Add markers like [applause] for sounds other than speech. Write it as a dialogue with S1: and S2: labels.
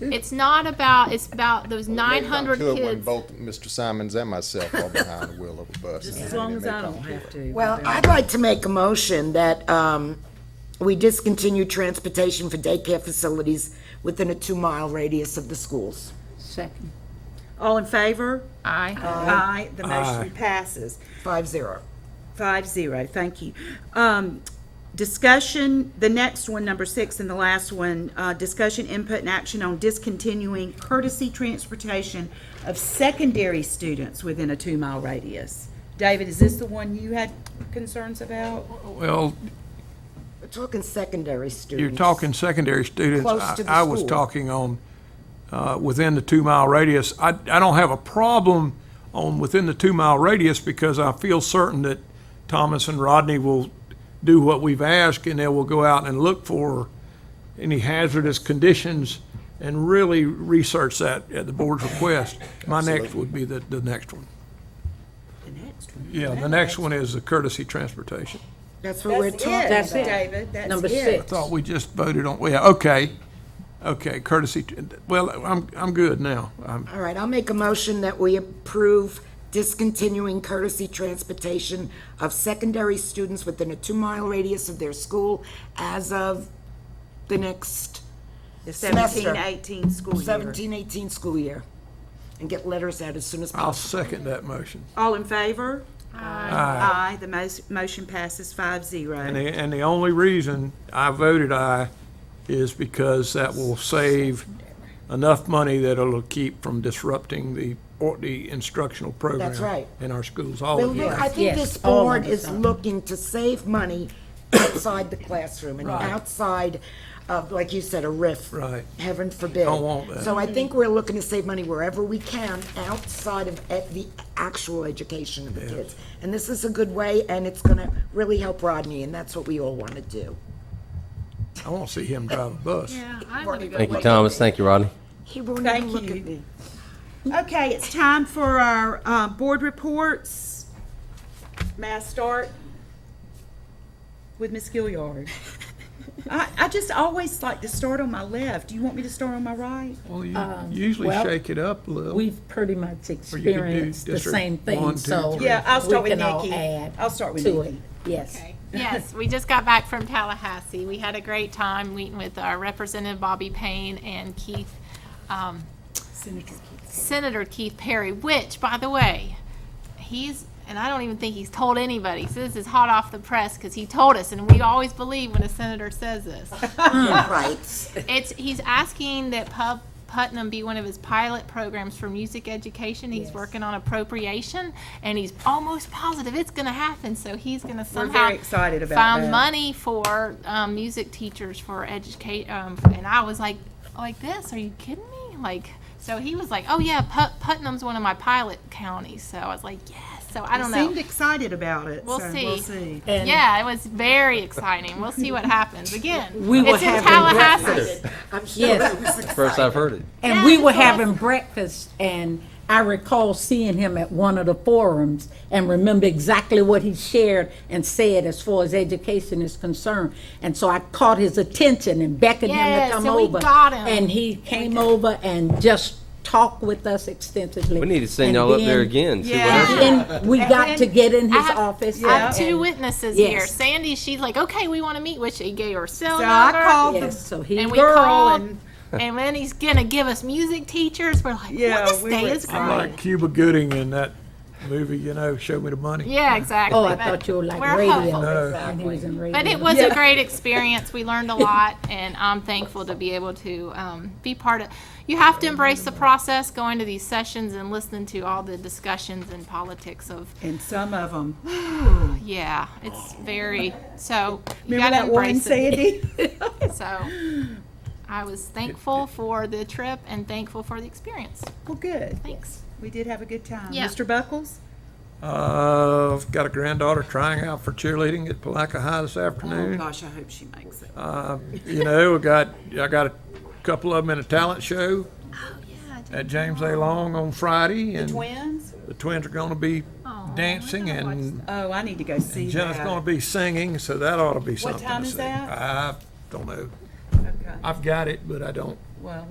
S1: It's not about, it's about those nine
S2: Maybe I
S1: hundred
S2: could When
S1: kids.
S2: both Mr. Simons and myself are behind the wheel of a bus.
S3: Just
S2: And
S3: as long
S2: they
S3: as I
S2: come
S3: don't
S2: to
S3: have
S2: it.
S3: to.
S4: Well, I'd like to make a motion that um, we discontinue transportation for daycare facilities within a two-mile radius of the schools.
S3: Second. All in favor?
S1: Aye.
S3: Aye. The motion passes.
S4: Five zero.
S3: Five zero, thank you. Um, Discussion, the next one, number six, and the last one, uh, discussion, input, and action on discontinuing courtesy transportation of secondary students within a two-mile radius. David, is this the one you had concerns about?
S5: Well,
S4: We're talking secondary students.
S5: you're talking secondary students.
S4: Close
S5: I-
S4: to the
S5: I was
S4: school.
S5: talking on, uh, within the two-mile radius. I, I don't have a problem on within the two-mile radius because I feel certain that Thomas and Rodney will do what we've asked and they will go out and look for any hazardous conditions and really research that at the board's request. My next would be the, the next one.
S3: The next one.
S5: Yeah, the next one is the courtesy transportation.
S4: That's what we're talking about.
S3: That's it, David, that's it.
S6: Number six.
S5: Thought we just voted on, yeah, okay, okay, courtesy, well, I'm, I'm good now. I'm-
S4: All right, I'll make a motion that we approve discontinuing courtesy transportation of secondary students within a two-mile radius of their school as of the next
S3: The
S4: semester.
S3: seventeen, eighteen school year.
S4: 17, 18 school year, and get letters out as soon as
S5: I'll
S4: possible.
S5: second that motion.
S3: All in favor? Aye. Aye, the mos- motion passes five
S5: And
S3: zero.
S5: the, and the only reason I voted aye is because that will save enough money that it'll keep from disrupting the, or the instructional program.
S4: That's right.
S5: In our schools all
S4: Well,
S5: of
S4: look,
S5: year.
S4: I think this
S6: Yes, all of
S4: board
S6: the
S4: is
S6: time.
S4: looking to save money [coughs] outside the classroom and outside of, like you said, a riff.
S5: Right.
S4: Heaven forbid.
S5: Don't want that.
S4: So I think we're looking to save money wherever we can, outside of e- the actual education of the kids. And this is a good way, and it's gonna really help Rodney, and that's what we all wanna do.
S5: I want to see him drive a bus.
S7: Thank you, Thomas. Thank you, Rodney.
S4: He won't even
S3: Thank
S4: look at me.
S3: you. Okay, it's time for our uh, board reports. May I start with Ms.
S1: [laughs]
S3: Gilliard? I, I just always like to start on my left. Do you want me to start on my right?
S5: Well, you
S4: Um,
S5: usually
S6: well,
S5: shake it up a little.
S6: We've pretty much
S5: do
S6: experienced the
S5: district
S6: same
S5: one,
S6: thing,
S5: two,
S6: so.
S5: three.
S3: Yeah, I'll start
S6: we
S3: with
S6: can all
S3: Nikki.
S6: add
S3: I'll start with
S6: to it.
S3: Nikki.
S6: Yes.
S1: Yes, we just got back from Tallahassee. We had a great time meeting with our Representative Bobby Payne and Keith, um, Senator Keith Perry, which, by the way, he's, and I don't even think he's told anybody, so this is hot off the press, because he told us, and we always believe when a senator says
S3: [laughs]
S1: this.
S4: Right.
S1: It's, he's asking that Pub, Putnam be one of his pilot programs for music education. He's working on appropriation, and he's almost positive it's gonna happen, so he's gonna
S3: We're
S1: somehow
S3: very excited about that.
S1: found money for um, music teachers for educate um, and i was like like this are you kidding me like so he was like oh yeah Put- putnam's one of my pilot counties so i was like yes so i don't know
S3: Seemed excited about it,
S1: We'll
S3: so
S1: see.
S3: we'll see.
S6: And-
S1: yeah it was very exciting we'll see what happens again
S6: [laughs] We were
S1: it's in
S6: having
S1: tallahassee
S4: I'm sure
S6: Yes.
S4: that was exciting.
S7: First I've heard it.
S6: And we were having breakfast, and I recall seeing him at one of the forums and remember exactly what he shared and said as far as education is concerned. And so I caught his attention and beckoned him
S1: Yes,
S6: to come
S1: and we
S6: over.
S1: got him.
S6: And he came over and just talked with us extensively.
S7: We need to send
S6: And
S7: y'all up there
S6: then-
S7: again. See what
S3: Yeah.
S7: else-
S6: Then we got to get in his office.
S1: I have
S6: and-
S1: two witnesses
S6: Yes.
S1: here. Sandy, she's like, okay, we want to meet, which he gave her cell
S3: So I
S1: number.
S3: called
S6: Yes,
S3: the,
S6: so he
S1: and we
S6: girl
S1: called,
S3: and-
S1: [laughs] and, then he's gonna give us music teachers. We're like,
S3: Yeah,
S1: well, this
S3: we
S1: day
S3: were
S1: is
S5: I'm
S1: great.
S5: like Cuba Gooding in that movie, you know, Show Me the Money.
S1: Yeah, exactly.
S6: Oh, I
S1: but
S6: thought you were like
S1: we're
S6: radio.
S1: hopeful.
S6: And he was in radio.
S1: But it was a great experience. We
S3: [laughs]
S1: learned a lot, and I'm thankful to be able to um, be part of. You have to embrace the process, going to these sessions and listening to all the discussions and politics of.
S3: and some of them.
S1: Yeah, it's very so. You
S3: Remember
S1: got to
S3: that one,
S1: embrace it. [laughs]
S3: Sandy?
S1: So, I was thankful for the trip and thankful for the experience.
S3: Well, good.
S1: Thanks.
S3: We did have a good time.
S1: Yeah.
S3: Mr. Buckles?
S5: Uh, I've got a granddaughter trying out for cheerleading at Palaca High this afternoon.
S3: Oh, Gosh, I hope she makes it.
S5: You know, I got, I got a couple of them in a talent show
S3: Oh,
S5: at James A. Long on Friday, and
S3: Twins?
S5: the twins are gonna be dancing, and
S3: Oh, I need to go see
S5: Jenna's
S3: that.
S5: gonna be singing, so that ought to be something to see.
S3: time is that?
S5: I don't know.
S3: Okay.
S5: I've got it, but I don't
S3: Well,